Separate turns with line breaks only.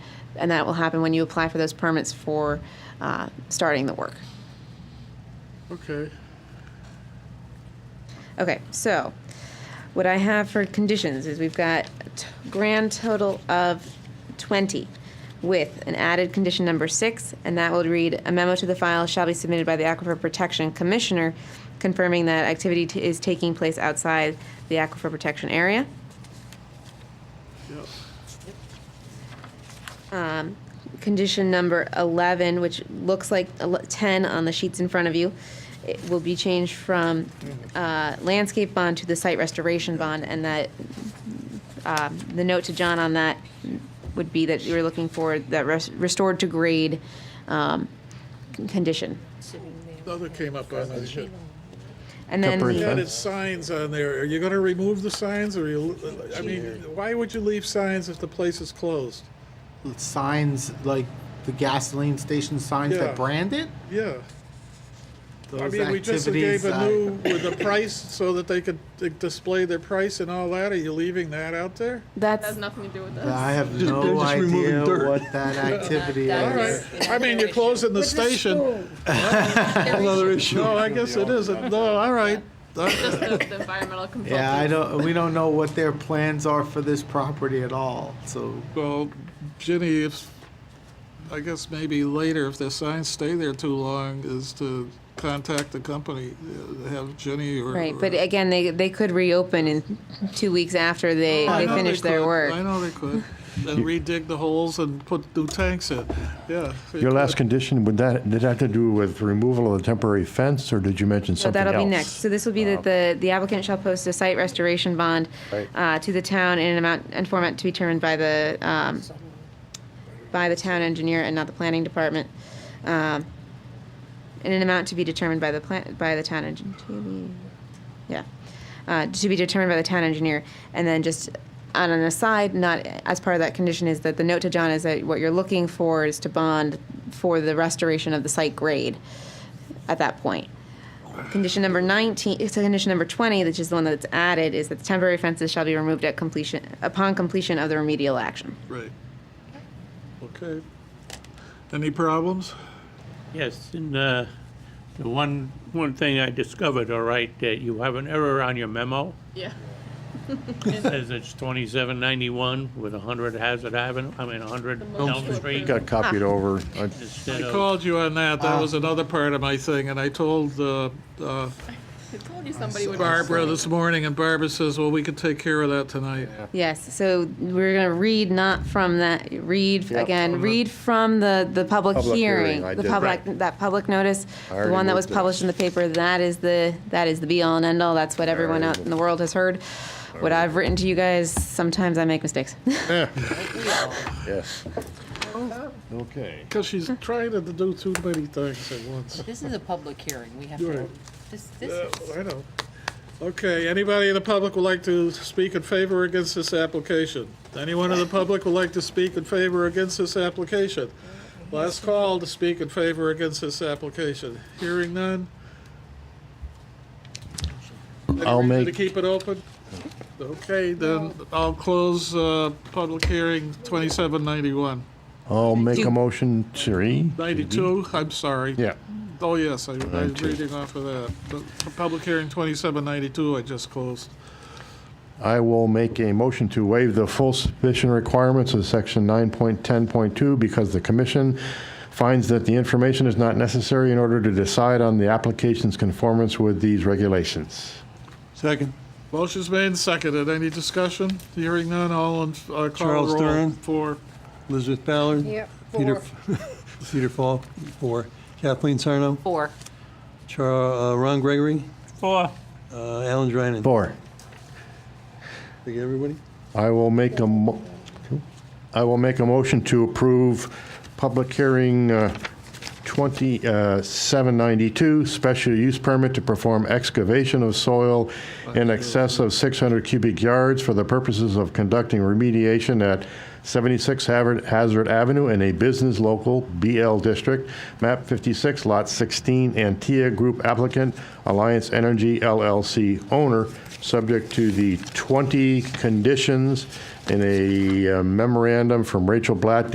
and that will happen when you apply for those permits for uh, starting the work.
Okay.
Okay, so what I have for conditions is we've got a t- grand total of 20 with an added condition number six, and that will read a memo to the file shall be submitted by the Aquifer Protection Commissioner confirming that activity t- is taking place outside the aquifer protection area.
Yep.
Condition number 11, which looks like ele- 10 on the sheets in front of you, it will be changed from uh, landscape bond to the site restoration bond, and that, um, the note to John on that would be that you were looking for that res- restored to grade um, c- condition.
The other came up on the shit.
And then,
Temporary
the-
You
fence.
added signs on there. Are you gonna remove the signs or you, I mean, why would you leave signs if the place is closed?
signs like the gasoline station signs
Yeah.
that brand it.
Yeah. I
Those
mean, we just gave
activities,
a
uh,
new, with the price, so that they could uh, display their price and all that. Are you leaving that out there?
that's,
nothing to do with
I have
Just- they're
no
just removing
idea
dirt.
what that activity
That-
All
that
is.
right.
Yes.
I mean, you're closing the station.
Another issue.
No, I guess it isn't. No, all right.
Just the, the environmental consultant.
Yeah, I don't. We don't know what their plans are for this property at all. So
Well, Ginny, if, I guess maybe later, if the signs stay there too long, is to contact the company, uh, have Ginny or.
right, but
or-
again, they, they could reopen in two weeks after they,
Oh, I
they
know
finish
could.
their
I
work.
know they could. And redig the holes and put new tanks in, yeah. they
Your last
could.
condition, would that, did that have to do with removal of the temporary fence, or did you mention
So
something else? Um,
that'll be next. So this will be that the, the applicant shall post a site restoration bond
Right.
uh, to the town in an amount and format to be determined by the, um, by the town engineer and not the planning department. um, In an amount to be determined by the plan, by the town engineer, yeah. Uh, To be determined by the town engineer. And then just on an aside, not as part of that condition is that the note to John is that what you're looking for is to bond for the restoration of the site grade at that point. Condition number 19, it's condition number 20, which is the one that's added, is that the temporary fences shall be removed at completion, upon completion of the remedial action.
Right. Okay. Any problems?
Yes, and uh, the one, one thing I discovered, all right, that you have an error on your memo.
Yeah.
It says it's 2791 with 100 Hazard Avenue, I mean, 100 Elm Street.
Got
Ah.
copied over. I-
instead
I
of-
called you on that. That was another part of my thing, and I told uh, uh,
I told you somebody would.
Barbara this morning, and Barbara says, well, we could take care of that tonight.
Yes, so we're going to read not from that, read,
Yep.
again, read from the, the public
Public hearing,
hearing.
I
The
did.
public, that public notice,
I
the
already
one that was
moved it.
published in the paper, that is the, that is the be-all and end-all. That's what everyone
already
out in
moved
the world has heard. What I've written to you guys, sometimes I make mistakes.
Yes. Okay.
Because she's
Hmm.
trying to do too many things at once.
This is a public hearing, we have
Right.
to, this, this
Uh,
is.
I know. Okay, anybody in the public would like to speak in favor or against this application? Anyone in the public would like to speak in favor or against this application? Last call to speak in favor or against this application. Hearing none? Any
I'll
reason To
make-
keep it open? Okay, then I'll close, uh, public hearing twenty-seven ninety-one.
I'll make
Do-
a motion, Siri.
Ninety-two, I'm sorry.
Mm-hmm. Yeah.
Oh, yes, I I was
92.
reading off of that. The Public hearing twenty-seven ninety-two I just closed.
I will make a motion to waive the full submission requirements of section 9.10.2 because the commission finds that the information is not necessary in order to decide on the application's conformance with these regulations.
Second,
Motion's made and seconded. Any discussion? Hearing none, all in, uh, call
Charles
roll.
Stern.
Four.
Elizabeth Ballard. Peter, Peter Fall, four. Kathleen Sarno,
Four.
Char, uh, Ron Gregory,
Four.
uh, Alan Drynan.
Four.
Thank you, everybody.
I will make a, mo- I will make a motion to approve public hearing uh, 2792, special use permit to perform excavation of soil in excess of 600 cubic yards for the purposes of conducting remediation at 76 Haver- Hazard Avenue in a business local BL district, map 56, lot 16, Antia Group applicant, Alliance Energy LLC owner, subject to the 20 conditions in a uh, memorandum from Rachel Blatt